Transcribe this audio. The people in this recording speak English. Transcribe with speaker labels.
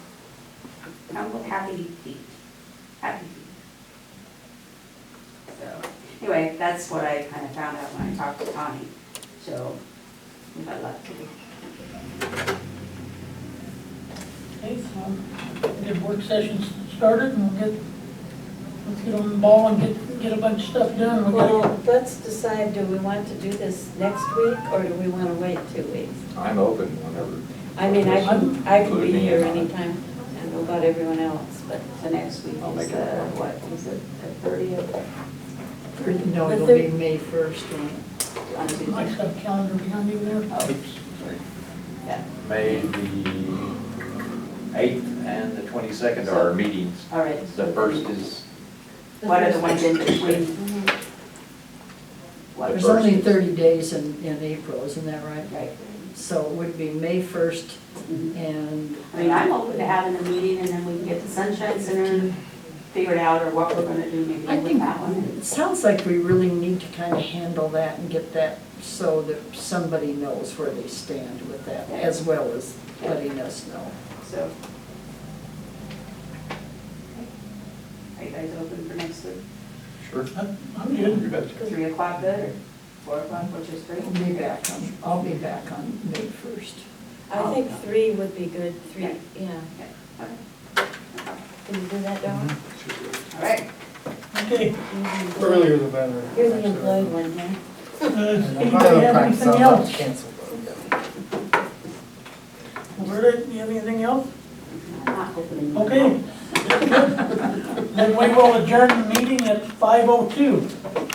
Speaker 1: I'm with happy feet, happy feet. So, anyway, that's what I kind of found out when I talked to Connie, so we got lucky.
Speaker 2: Okay, so get work sessions started and we'll get, let's get on the ball and get, get a bunch of stuff done. We gotta-
Speaker 3: Well, let's decide, do we want to do this next week, or do we want to wait two weeks?
Speaker 4: I'm open whenever.
Speaker 3: I mean, I can, I can
Speaker 4: Include
Speaker 3: be
Speaker 4: me
Speaker 3: here
Speaker 4: in on it.
Speaker 3: anytime, I don't know about everyone else, but
Speaker 1: So next week
Speaker 4: I'll make
Speaker 1: is
Speaker 4: it
Speaker 1: the,
Speaker 4: work.
Speaker 1: what, is it the thirtieth
Speaker 5: No,
Speaker 3: The
Speaker 5: it'll
Speaker 3: thir-
Speaker 5: be May first, when
Speaker 1: on
Speaker 2: I
Speaker 1: Tuesday?
Speaker 2: stuff calendar behind you there.
Speaker 1: Oh, yeah,
Speaker 4: May the eighth and the twenty-second are our meetings.
Speaker 1: all right.
Speaker 4: The first is,
Speaker 1: What are the ones in between? What
Speaker 5: there's
Speaker 4: first
Speaker 5: only
Speaker 4: is-
Speaker 5: thirty days in, in April, isn't that right?
Speaker 1: Right.
Speaker 5: So it would be May first and.
Speaker 1: I mean, I'm open to having a meeting and then we can get the Sunshine Center figured out or what we're gonna do maybe
Speaker 5: I
Speaker 1: with
Speaker 5: think,
Speaker 1: that one.
Speaker 5: it sounds like we really need to kind of handle that and get that so that somebody knows where they stand with that, as well as letting us know.
Speaker 1: So. Are you guys open for next week?
Speaker 4: sure,
Speaker 2: I'm- I'm good.
Speaker 4: you betcha.
Speaker 1: Three o'clock good or four o'clock, which is three?
Speaker 5: I'll be back on, I'll be back on May first.
Speaker 3: I think three would be good,
Speaker 1: Yeah.
Speaker 3: three, yeah.
Speaker 1: Yeah, okay. No problem.
Speaker 3: Can you do that, Dawn?
Speaker 1: All right,
Speaker 2: Okay.
Speaker 6: Earlier the better.
Speaker 3: You're the employed one, huh?
Speaker 2: Uh, does
Speaker 6: I'm
Speaker 2: Anybody
Speaker 6: gonna
Speaker 2: have
Speaker 6: practice
Speaker 2: anything
Speaker 6: on that
Speaker 2: else?
Speaker 6: cancel vote.
Speaker 2: Roberta, you have anything else?
Speaker 1: I'm not opening.
Speaker 2: Okay. Then we will adjourn the meeting at five oh two.